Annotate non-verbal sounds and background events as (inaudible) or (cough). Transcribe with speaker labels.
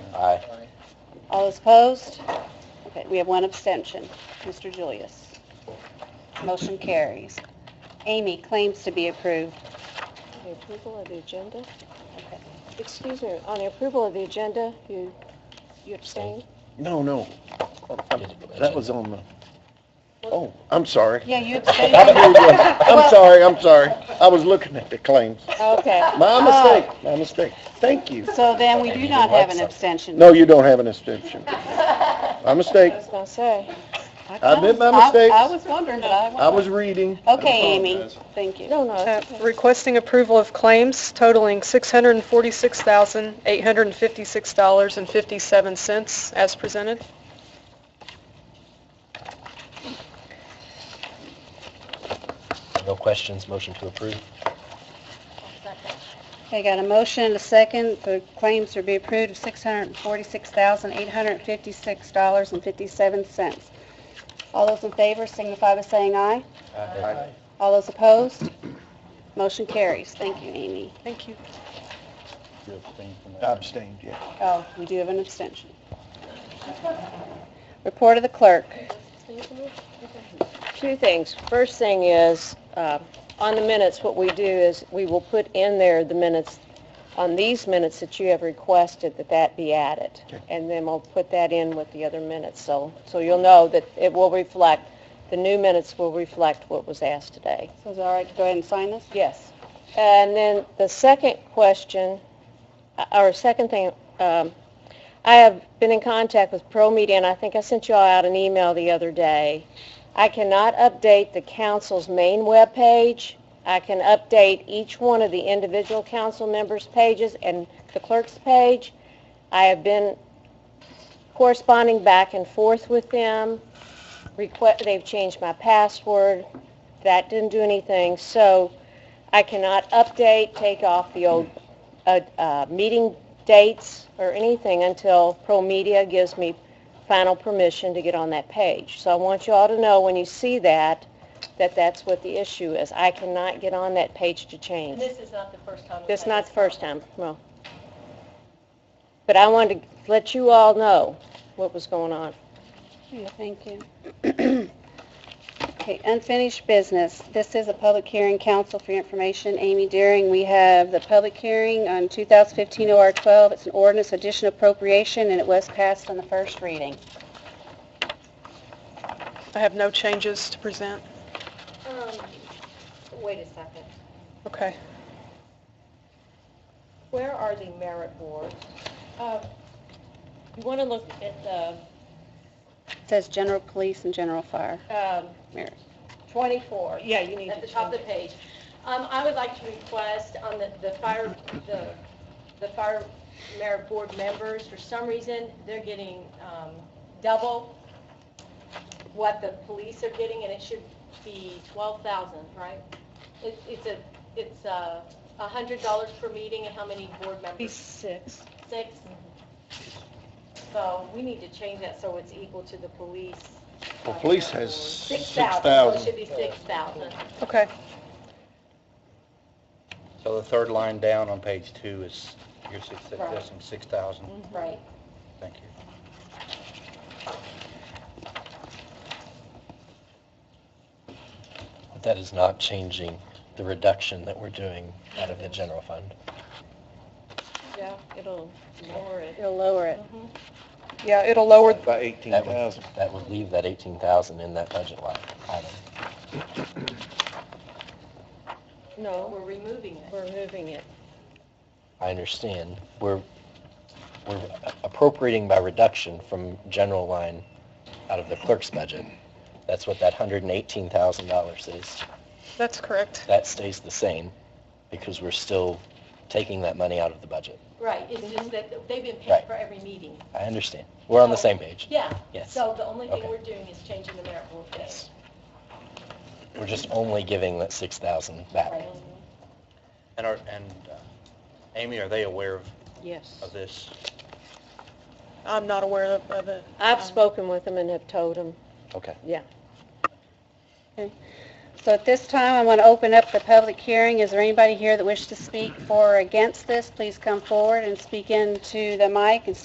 Speaker 1: Aye.
Speaker 2: All those opposed? Okay, we have one abstention. Mr. Julius. Motion carries. Amy, claims to be approved.
Speaker 3: The approval of the agenda?
Speaker 2: Okay.
Speaker 3: Excuse me, on the approval of the agenda, you, you abstained?
Speaker 4: No, no. That was on the, oh, I'm sorry.
Speaker 2: Yeah,
Speaker 4: (laughs)
Speaker 2: you
Speaker 4: I'm
Speaker 2: abstained.
Speaker 4: doing it. I'm
Speaker 2: Well-
Speaker 4: sorry, I'm sorry. I was looking at the claims.
Speaker 3: Okay.
Speaker 2: Oh.
Speaker 4: My mistake, my mistake. Thank you.
Speaker 2: So then we do not have an
Speaker 1: Website.
Speaker 2: abstention.
Speaker 4: No, you don't have an abstention. My mistake.
Speaker 3: I was gonna say,
Speaker 4: I admit my
Speaker 2: I-
Speaker 4: mistakes.
Speaker 2: I was wondering, but I
Speaker 4: I
Speaker 2: wasn't.
Speaker 4: was reading.
Speaker 2: Okay, Amy, thank you.
Speaker 3: no, no,
Speaker 5: Uh,
Speaker 3: it's okay.
Speaker 5: Requesting approval of claims totaling $646,856.57 as presented.
Speaker 1: No questions, motion to approve.
Speaker 2: Okay, got a motion and a second. The claims are be approved of $646,856.57. All those in favor signify by saying aye.
Speaker 1: Aye.
Speaker 2: All those opposed? Motion carries. Thank you, Amy.
Speaker 5: Thank you.
Speaker 4: I abstained, yeah.
Speaker 2: Oh, we do have an abstention. Report of the clerk.
Speaker 3: Two things. First thing is, uh, on the minutes, what we do is we will put in there the minutes, on these minutes that you have requested that that be added. And then we'll put that in with the other minutes. So, so you'll know that it will reflect, the new minutes will reflect what was asked today.
Speaker 2: So is it all right to go ahead and sign this?
Speaker 3: Yes. And then the second question, uh, or second thing, um, I have been in contact with Pro Media, and I think I sent you all out an email the other day. I cannot update the council's main webpage. I can update each one of the individual council members' pages and the clerk's page. I have been corresponding back and forth with them. Requ- They've changed my password. That didn't do anything. So I cannot update, take off the old, uh, uh, meeting dates or anything until Pro Media gives me final permission to get on that page. So I want you all to know when you see that, that that's what the issue is. I cannot get on that page to change. This is not the first time. This is not the first time, no. But I wanted to let you all know what was going on.
Speaker 2: Yeah, Thank you. Okay, unfinished business. This is a public hearing, council for your information, Amy Deering. We have the public hearing on 2015 OR 12. It's an ordinance addition appropriation, and it was passed on the first reading.
Speaker 5: I have no changes to present.
Speaker 3: Um,
Speaker 6: Wait a second.
Speaker 5: Okay.
Speaker 6: Where are the merit boards? Um, You want to look at the
Speaker 2: It says general police and general fire.
Speaker 6: um,
Speaker 2: Merit.
Speaker 6: 24.
Speaker 5: Yeah, you need
Speaker 6: At the top of the page. Um, I would like to request on the the fire, the the fire merit board members, for some reason, they're getting um, double what the police are getting, and it should be 12,000, right? It- It's a, it's uh, a $100 per meeting, and how many board members?
Speaker 3: six.
Speaker 6: six. So we need to change that so it's equal to the police.
Speaker 4: Well, police has
Speaker 6: Six thousand, so it
Speaker 4: 6,000.
Speaker 6: should be six thousand.
Speaker 5: Okay.
Speaker 7: So the third line down on page two is, your six,
Speaker 6: Right.
Speaker 7: there's some 6,000,
Speaker 6: Right.
Speaker 7: thank you.
Speaker 1: But that is not changing the reduction that we're doing out of the general fund.
Speaker 3: Yeah, it'll lower it.
Speaker 2: It'll lower it.
Speaker 5: Yeah, it'll lower,
Speaker 4: By eighteen
Speaker 1: That would,
Speaker 4: thousand.
Speaker 1: that would leave that 18,000 in that budget line item.
Speaker 3: No,
Speaker 6: We're removing it.
Speaker 3: we're moving it.
Speaker 1: I understand. We're, we're appropriating by reduction from general line out of the clerk's budget. That's what that $118,000 is.
Speaker 5: that's correct.
Speaker 1: That stays the same because we're still taking that money out of the budget.
Speaker 6: Right, it's
Speaker 3: Mhm.
Speaker 6: just that they've been paid
Speaker 1: Right.
Speaker 6: for every meeting.
Speaker 1: I understand. We're on the same page.
Speaker 6: Yeah.
Speaker 1: Yes.
Speaker 6: So the only thing
Speaker 1: Okay.
Speaker 6: we're doing is changing the merit board pay.
Speaker 1: Yes. We're just only giving that 6,000 back.
Speaker 6: Right.
Speaker 7: And are, and uh, Amy, are they aware of,
Speaker 3: Yes.
Speaker 7: of this?
Speaker 5: I'm not aware of- of it.
Speaker 3: I've spoken with them and have told them.
Speaker 1: Okay.
Speaker 2: So at this time, I want to open up the public hearing. Is there anybody here that wishes to speak for or against this? Please come forward and speak into the mic and